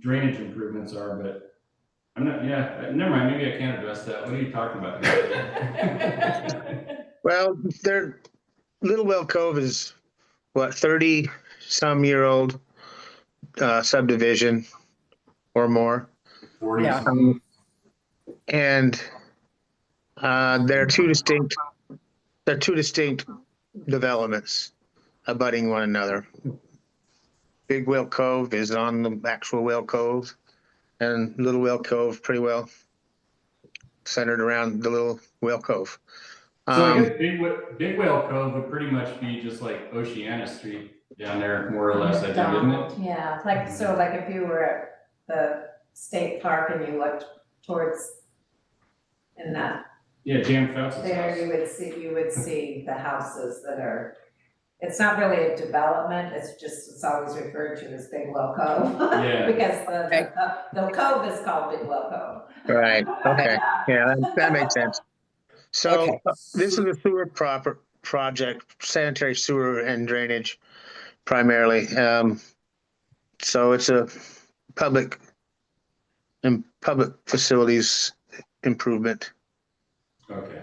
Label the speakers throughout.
Speaker 1: drainage improvements are, but I'm not, yeah, uh, never mind, maybe I can't address that. What are you talking about?
Speaker 2: Well, they're, Little Well Cove is, what, thirty some year old uh, subdivision or more.
Speaker 1: Forty
Speaker 3: Yeah.
Speaker 2: Um, And uh, there are two distinct, there are two distinct developments abutting one another. Big Well Cove is on the actual Well Cove, and Little Well Cove pretty well centered around the Little Well Cove.
Speaker 1: So I
Speaker 2: Um,
Speaker 1: guess Big Whale, Big Whale Cove would pretty much be just like Oceana Street down there, more or less, I think, isn't it?
Speaker 3: Yeah, it's like, so like if you were at the state park and you looked towards in that,
Speaker 1: Yeah, Jan Fouts'
Speaker 3: there you
Speaker 1: house.
Speaker 3: would see, you would see the houses that are, it's not really a development, it's just, it's always referred to as Big Well Cove.
Speaker 1: Yeah,
Speaker 3: Because the, the- the cove is called Big Well Cove.
Speaker 2: Right, okay, yeah, that- that makes sense. So
Speaker 4: Okay.
Speaker 2: uh, this is a sewer proper project, sanitary sewer and drainage primarily. Um, So it's a public and public facilities improvement.
Speaker 1: okay.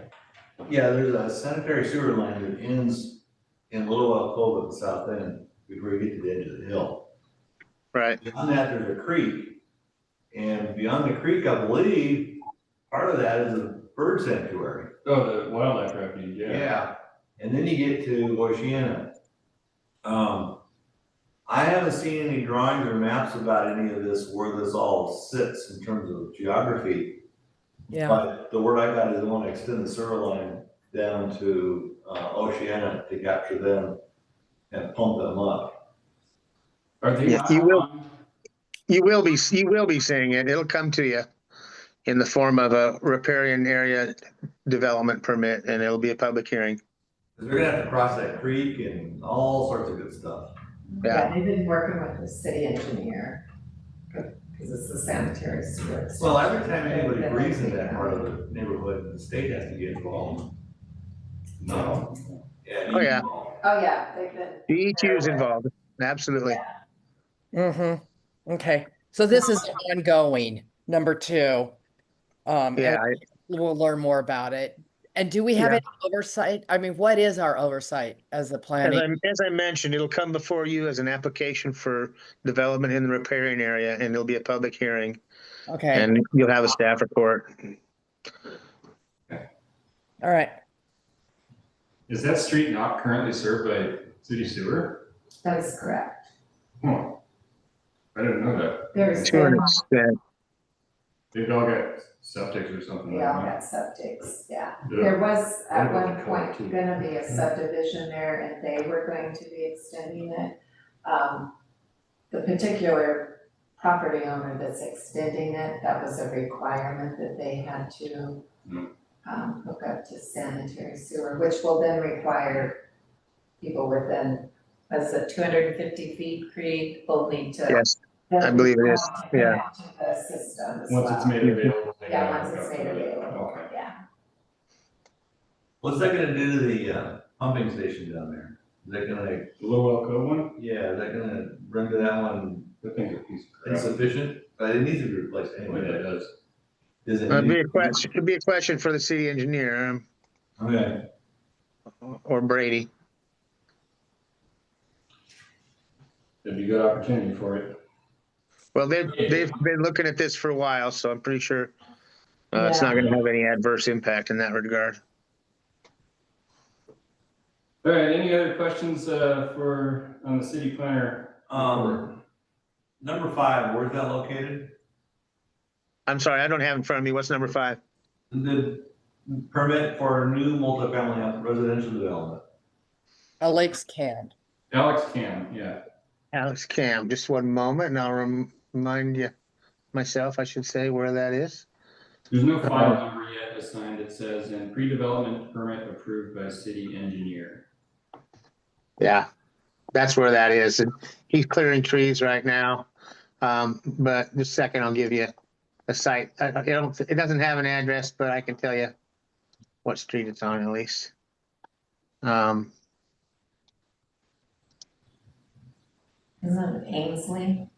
Speaker 5: Yeah, there's a sanitary sewer line that ends in Little Well Cove at the south end before you get to the edge of the hill.
Speaker 2: Right,
Speaker 5: Beyond that, there's a creek. And beyond the creek, I believe, part of that is a bird sanctuary.
Speaker 1: Oh, the wildlife refuge, yeah.
Speaker 5: Yeah. And then you get to Oceana. Um, I haven't seen any drawings or maps about any of this, where this all sits in terms of geography.
Speaker 4: Yeah,
Speaker 5: But the word I got is they want to extend the sewer line down to uh, Oceana to capture them and pump them up.
Speaker 1: Are they?
Speaker 2: Yeah, you will.
Speaker 1: on-
Speaker 2: you will be, you will be seeing it, it'll come to you in the form of a riparian area development permit, and it'll be a public hearing.
Speaker 5: 'Cause They're gonna have to cross that creek and all sorts of good stuff.
Speaker 2: Yeah.
Speaker 3: They've been working with the city engineer, because it's the sanitary sewer.
Speaker 5: Well, every time anybody breathes in that part of the neighborhood, the state has to get involved. No. Yeah.
Speaker 2: Oh, yeah.
Speaker 3: Oh, yeah, they've been,
Speaker 2: DEQ is involved, absolutely.
Speaker 4: mm-hmm, okay, so this is ongoing, number two. Um, and
Speaker 2: Yeah, I-
Speaker 4: we'll learn more about it. And do we have
Speaker 2: Yeah.
Speaker 4: any oversight? I mean, what is our oversight as the
Speaker 2: As
Speaker 4: planning?
Speaker 2: I, as I mentioned, it'll come before you as an application for development in the riparian area, and there'll be a public hearing,
Speaker 4: Okay,
Speaker 2: and you'll have a staff report.
Speaker 4: all right,
Speaker 1: Is that street not currently served by city sewer?
Speaker 3: that is correct.
Speaker 1: Huh. I didn't know that.
Speaker 3: There's,
Speaker 2: To
Speaker 3: yeah,
Speaker 2: an extent,
Speaker 1: They've all got septics or something
Speaker 3: we
Speaker 1: like
Speaker 3: all
Speaker 1: that.
Speaker 3: got septics, yeah.
Speaker 1: Uh-huh. Yeah.
Speaker 3: There was at
Speaker 1: What about
Speaker 3: one
Speaker 1: the
Speaker 3: point
Speaker 1: collective?
Speaker 3: gonna be a
Speaker 1: Mm-hmm.
Speaker 3: subdivision there and they were going to be extending it. Um, the particular property owner that's extending it, that was a requirement that they had to
Speaker 1: Hmm.
Speaker 3: um, hook up to sanitary sewer, which will then require people within, was it two hundred and fifty feet creek will need to.
Speaker 2: yes, I believe it is, yeah.
Speaker 3: To the system
Speaker 1: Once
Speaker 3: as well.
Speaker 1: it's made available. they
Speaker 3: Yeah,
Speaker 1: gotta
Speaker 3: once
Speaker 1: hook
Speaker 3: it's
Speaker 1: up
Speaker 3: made
Speaker 1: to it.
Speaker 3: available,
Speaker 1: Okay.
Speaker 3: yeah.
Speaker 5: What's that gonna do to the uh, pumping station down there? Is that gonna,
Speaker 1: The Little Elko one,
Speaker 5: yeah, is that gonna render that one
Speaker 1: I think it's a piece of crap.
Speaker 5: insufficient? But it needs to be replaced
Speaker 1: Anyway, that
Speaker 5: anyway.
Speaker 1: does.
Speaker 5: Does it
Speaker 2: it'd be
Speaker 5: need-
Speaker 2: a question, it'd be a question for the city engineer um,
Speaker 5: Okay.
Speaker 2: or Brady.
Speaker 1: It'd be a good opportunity for it.
Speaker 2: Well, they've, they've been looking at this for a while, so I'm pretty sure uh, it's
Speaker 3: Yeah.
Speaker 2: not gonna have any adverse impact in that regard.
Speaker 1: All right, any other questions, uh, for, on the city planner?
Speaker 5: Um, number five, where's that located?
Speaker 2: I'm sorry, I don't have in front of me, what's number five?
Speaker 5: The permit for new multifamily residential development.
Speaker 4: a lakes can.
Speaker 1: Alex Cam, yeah.
Speaker 2: Alex Cam, just one moment, and I'll rem- remind you, myself, I should say, where that is.
Speaker 1: There's no file number yet assigned. It says, and pre-development permit approved by city engineer.
Speaker 2: Yeah, that's where that is. And he's clearing trees right now. Um, but just a second, I'll give you a site. I, I don't, it doesn't have an address, but I can tell you what street it's on at least. Um,
Speaker 3: Isn't it Ainsley?